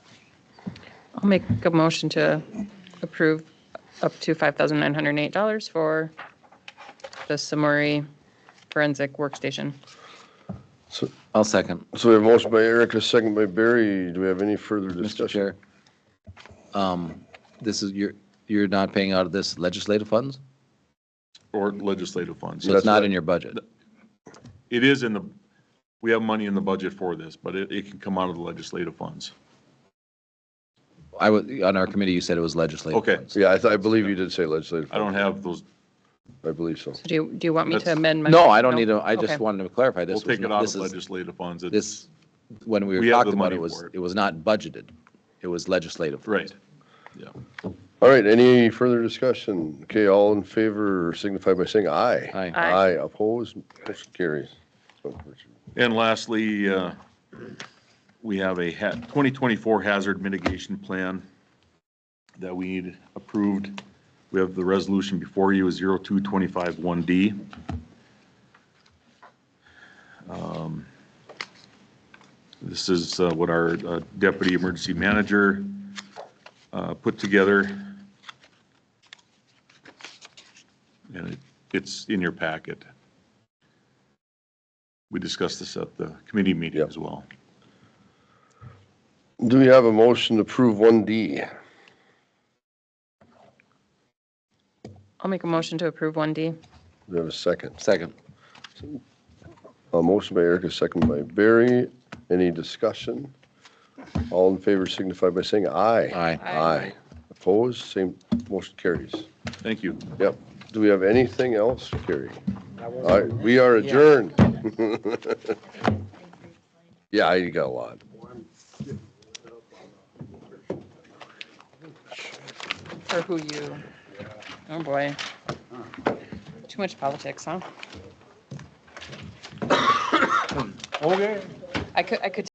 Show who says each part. Speaker 1: I'll make a motion to approve up to $5,908 for the Samori Forensic Workstation.
Speaker 2: So
Speaker 3: I'll second,
Speaker 2: so we have a motion by Eric, a second by Barry. Do we have any further
Speaker 3: Mr.
Speaker 2: discussion?
Speaker 3: Chair. Um, This is, you're, you're not paying out of this legislative funds?
Speaker 4: or legislative funds.
Speaker 3: So it's
Speaker 2: That's
Speaker 3: not
Speaker 2: right.
Speaker 3: in your budget?
Speaker 4: It is in the, we have money in the budget for this, but it, it can come out of the legislative funds.
Speaker 3: I was, on our committee, you said it was legislative
Speaker 4: Okay.
Speaker 3: funds.
Speaker 2: Yeah, I, th- I believe you did say legislative.
Speaker 4: I don't have those,
Speaker 2: I believe so.
Speaker 1: So do you, do you want me to
Speaker 4: That's-
Speaker 1: amend my?
Speaker 3: No, I don't need to, I
Speaker 1: Okay.
Speaker 3: just wanted to clarify
Speaker 4: we'll
Speaker 3: this. was
Speaker 4: take it
Speaker 3: not-
Speaker 4: out
Speaker 3: this
Speaker 4: of
Speaker 3: is-
Speaker 4: legislative funds. It's,
Speaker 3: This, when we were
Speaker 4: We have the
Speaker 3: talking about it,
Speaker 4: money
Speaker 3: it was,
Speaker 4: for it.
Speaker 3: it was not budgeted. It was legislative.
Speaker 4: right, yeah.
Speaker 2: All right, any further discussion? Okay, all in favor signify by saying aye.
Speaker 3: Aye.
Speaker 1: Aye.
Speaker 2: Aye, opposed, motion carries.
Speaker 4: And lastly, uh, we have a ha- 2024 hazard mitigation plan that we need approved. We have the resolution before you is 02251D. Um, This is uh, what our uh, deputy emergency manager uh, put together. And it- it's in your packet. We discussed this at the committee meeting
Speaker 2: Yep.
Speaker 4: as well.
Speaker 2: Do we have a motion to approve 1D?
Speaker 1: I'll make a motion to approve 1D.
Speaker 2: Do we have a second?
Speaker 3: Second.
Speaker 2: A motion by Eric, a second by Barry. Any discussion? All in favor signify by saying aye.
Speaker 3: Aye.
Speaker 2: Aye. Opposed, same, motion carries.
Speaker 4: Thank you.
Speaker 2: Yep. Do we have anything else, Carrie? All right, we are adjourned. Yeah, I got a lot.
Speaker 1: For who you, oh boy. Too much politics, huh?
Speaker 5: Okay.
Speaker 1: I could, I could